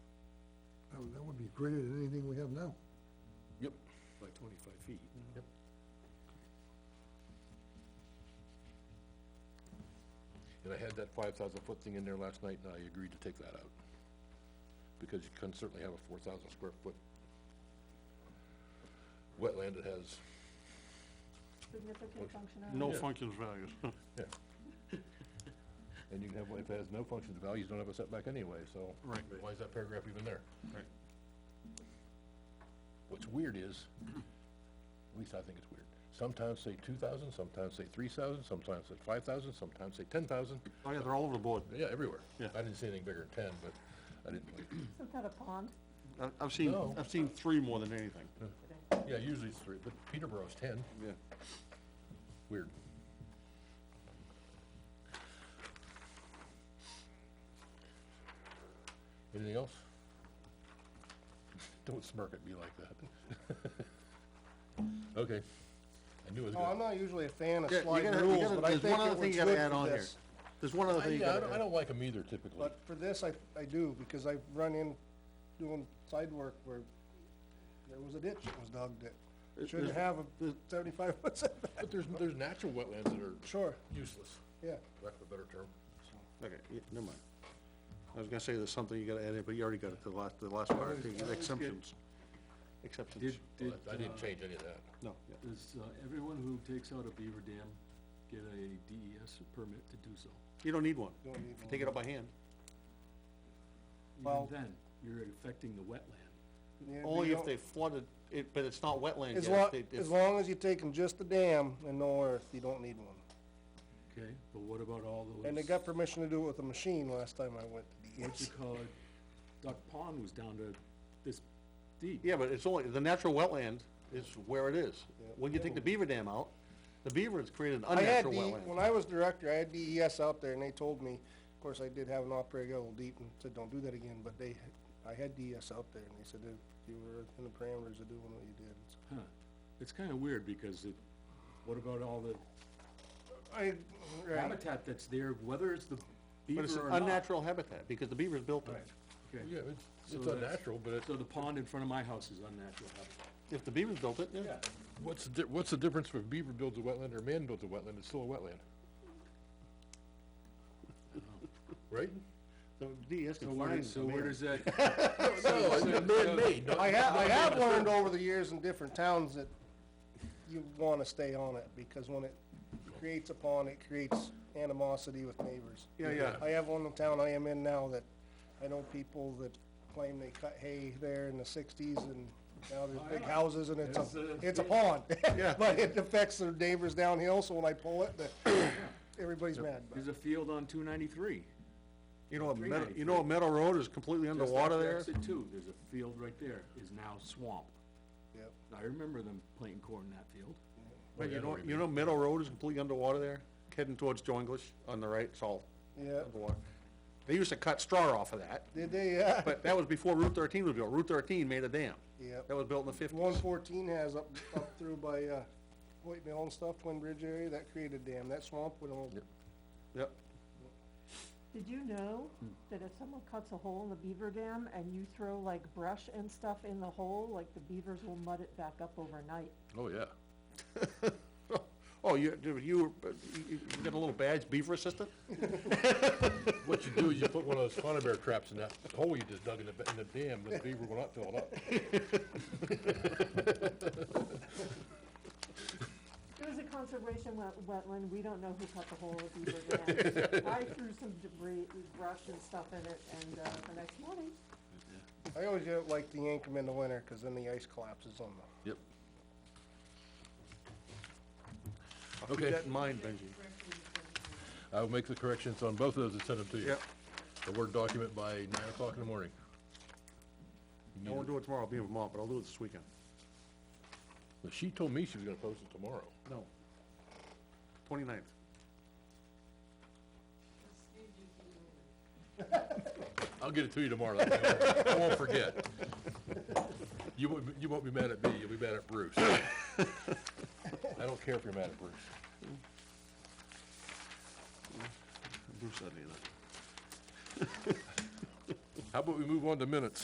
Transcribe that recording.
Oh, greater than anything we have now. Yep. by twenty-five feet. Yep. And I had that five thousand foot thing in there last night, and I agreed to take that out. Because you can certainly have a four thousand square foot wetland that has, Significant functionality. No Yeah. functions values. yeah. And you can have, one if it has no functions, the values don't have a setback anyway, so. Right. Why is that paragraph even there? Right. What's weird is, at least I think it's weird, sometimes say two thousand, sometimes say three thousand, sometimes say five thousand, sometimes say ten thousand, Oh, yeah, they're all over the board. yeah, everywhere. Yeah. I didn't see anything bigger than ten, but I didn't, like- Isn't that a pond? I- I've seen, No. I've seen three more than anything. yeah, usually it's three, but Peterborough's ten, Yeah. weird. Anything else? Don't smirk at me like that. Okay, I knew it was Oh, I'm gonna. not usually a fan of Yeah, you slide gotta- you rules, gotta- but I there's think one it other thing was you gotta good add for on here. this. There's one other I, thing you yeah, I don't, gotta I add. don't like them either typically. But for this, I, I do, because I've run in doing side work where there was a ditch that was dug that shouldn't have a seventy-five foot setback. But there's, there's natural wetlands that are Sure, useless, yeah. lack of a better term. Okay, yeah, never mind. I was gonna say there's something you gotta add in, but you already got it, the last, the last part, I think, exemptions. Exceptions, Did, did, uh, I uh, didn't change any of that. no, yeah. does uh, everyone who takes out a beaver dam get a DES permit to do so? You don't need one. Don't need one. Take it up by hand. Well- Even then, you're affecting the wetland. Yeah, Only you if don't- they flooded, it, but it's not wetland yet. As long, They- as if- long as you're taking just the dam and no earth, you don't need one. Okay, but what about all those? And they got permission to do it with a machine last time I went. E What you call it, Duck Pond was down to this deep. Yeah, but it's only, the natural wetland is where it is. When you take the beaver dam out, the beaver has created an I had unnatural D, wetland. when I was director, I had DES out there and they told me, of course, I did have an operator go a little deep and said, don't do that again, but they, I had DES out there and they said that you were in the parameters of doing what you did. So, Huh. It's kinda weird because it, what about all the I, right, habitat that's there, whether it's the But it's beaver an or not? unnatural habitat, because the beaver's built it. Okay. Yeah, it's, So it's that's- unnatural, but it's, So the pond in front of my house is unnatural habitat. If the beaver's built it, yeah. what's, the di- what's the difference if a beaver builds a wetland or man builds a wetland? It's still a wetland. Right? The DES So can where, find does- so the where man. does that, No, it's man-made, I have, I have learned over the years in different towns that you wanna stay on it, because when it creates a pond, it creates animosity with neighbors. Yeah, yeah. I have one in town I am in now that, I know people that claim they cut hay there in the sixties, and now there's big houses, and it's It's, uh, a, it's a pond. Yeah. But it affects their neighbors downhill, so when I pull it, the, everybody's mad about it. there's a field on two ninety-three. You know, a Meadow, you know, a Meadow Road is completely Just underwater after there? Exit two, there's a field right there, is now swamp. Yep. I remember them playing corn in that field. But you know, you know Meadow Road is completely underwater there, heading towards Joinglish on the right, it's all Yeah. underwater. They used to cut straw off of that, Did they, uh, yeah, but that was before Route thirteen was built. Route thirteen made a dam. Yep. That was built in the fifties. one fourteen has up, up through by, uh, White Mill and stuff, Twin Bridge area, that created a dam, that swamp would all, Yep. Did you know that if someone cuts a hole in the beaver dam and you throw like brush and stuff in the hole, like the beavers will mud it back up overnight? Oh, yeah. Oh, you, you, you you got a little badge, beaver assistant? What you do is you put one of those fauna bear traps in that hole you just dug in the, ba- in the dam, the beaver will not fill it up. It was a conservation wet, wetland, we don't know who cut the hole in the beaver dam. I threw some debris, brush and stuff in it, and, uh, the next morning, I always uh, like to yank them in the winter, cause then the ice collapses on them. Yep. Keep Okay. that in mind, Benji. I will make the corrections on both of those and send them to you. Yep. The Word document by nine o'clock in the morning. I won't do it tomorrow, I'll be in Vermont, but I'll do it this weekend. But She told me she was gonna post it tomorrow. No. Twenty-ninth. I'll get it to you tomorrow. I won't forget. You won't, you won't be mad at me, you'll be mad at Bruce. I don't care if you're mad at Bruce. Bruce doesn't either. How about we move on to minutes?